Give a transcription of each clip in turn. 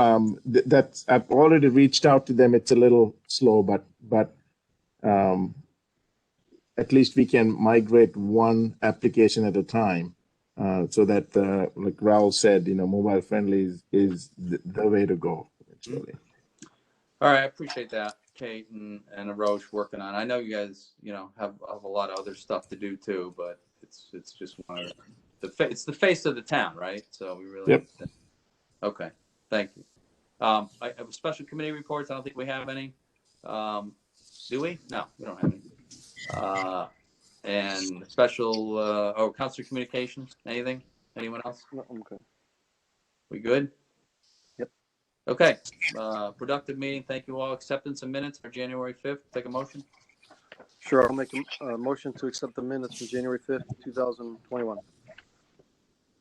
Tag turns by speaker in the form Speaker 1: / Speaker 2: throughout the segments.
Speaker 1: um, th- that's I've already reached out to them. It's a little slow, but but um, at least we can migrate one application at a time. Uh, so that, uh, like Raul said, you know, mobile friendly is, is the, the way to go. Actually.
Speaker 2: All right, I appreciate that, Kate and, and Roche working on. it. I know you guys, you know, have, have a lot of other stuff to do too, but it's, it's just one of the, fa- it's the face of the town, right? So we really.
Speaker 1: Yep.
Speaker 2: Okay, thank you. Um, I I have special committee reports. I don't think we have any. Um, do we? No, we don't have any. Uh, and special, uh, oh, council communications, anything? Anyone else?
Speaker 3: No, I'm good.
Speaker 2: We good?
Speaker 3: Yep.
Speaker 2: Okay, uh, productive meeting. Thank you all. Acceptance of minutes for January fifth. Take a motion.
Speaker 3: Sure, I'll make a, a motion to accept the minutes from January fifth, two thousand twenty-one.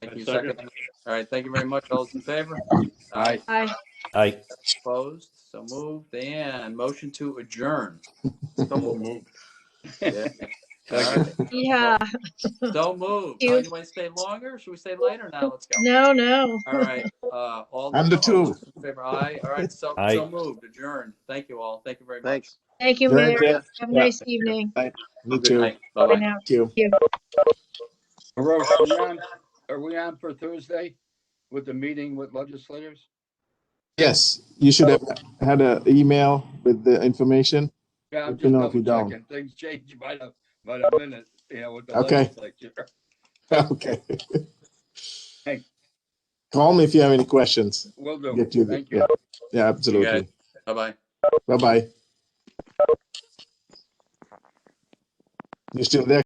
Speaker 2: Thank
Speaker 4: I
Speaker 2: you.
Speaker 4: second.
Speaker 2: Second. All right, thank you very much. All those in favor? Aye.
Speaker 5: Aye.
Speaker 6: Aye.
Speaker 2: Opposed? So moved. And motion to adjourn.
Speaker 4: Double move.
Speaker 2: Yeah. All
Speaker 4: Second.
Speaker 2: right.
Speaker 5: Yeah.
Speaker 2: So moved.
Speaker 5: Thank you.
Speaker 2: Oh, you want to stay longer? Should we stay later? Now, let's go.
Speaker 5: No, no.
Speaker 2: All right, uh, all.
Speaker 1: And the
Speaker 2: all
Speaker 1: two.
Speaker 2: those in Favor, aye. All right, so,
Speaker 6: Aye.
Speaker 2: so moved, adjourned. Thank you all. Thank you very much.
Speaker 3: Thanks.
Speaker 5: Thank you,
Speaker 1: Thank
Speaker 5: Mary.
Speaker 1: you.
Speaker 5: Have a nice evening.
Speaker 1: Me
Speaker 2: Good
Speaker 1: too.
Speaker 2: night.
Speaker 5: Bye
Speaker 2: Bye-bye.
Speaker 5: now.
Speaker 1: Thank you.
Speaker 4: Roche, are we on, are we on for Thursday with the meeting with legislators?
Speaker 1: Yes, you should have had an email with the information.
Speaker 4: Yeah, I'm
Speaker 1: Let me
Speaker 4: just
Speaker 1: know if you
Speaker 4: double
Speaker 1: don't.
Speaker 4: checking. Things change by the, by the minute, you know, with the
Speaker 1: Okay.
Speaker 4: legislature.
Speaker 1: Okay.
Speaker 4: Hey.
Speaker 1: Call me if you have any questions.
Speaker 4: Will do.
Speaker 1: Get you. the-
Speaker 4: Thank you.
Speaker 1: yeah. Yeah,
Speaker 2: You got
Speaker 1: absolutely.
Speaker 2: it. Bye-bye.
Speaker 1: Bye bye. You still there?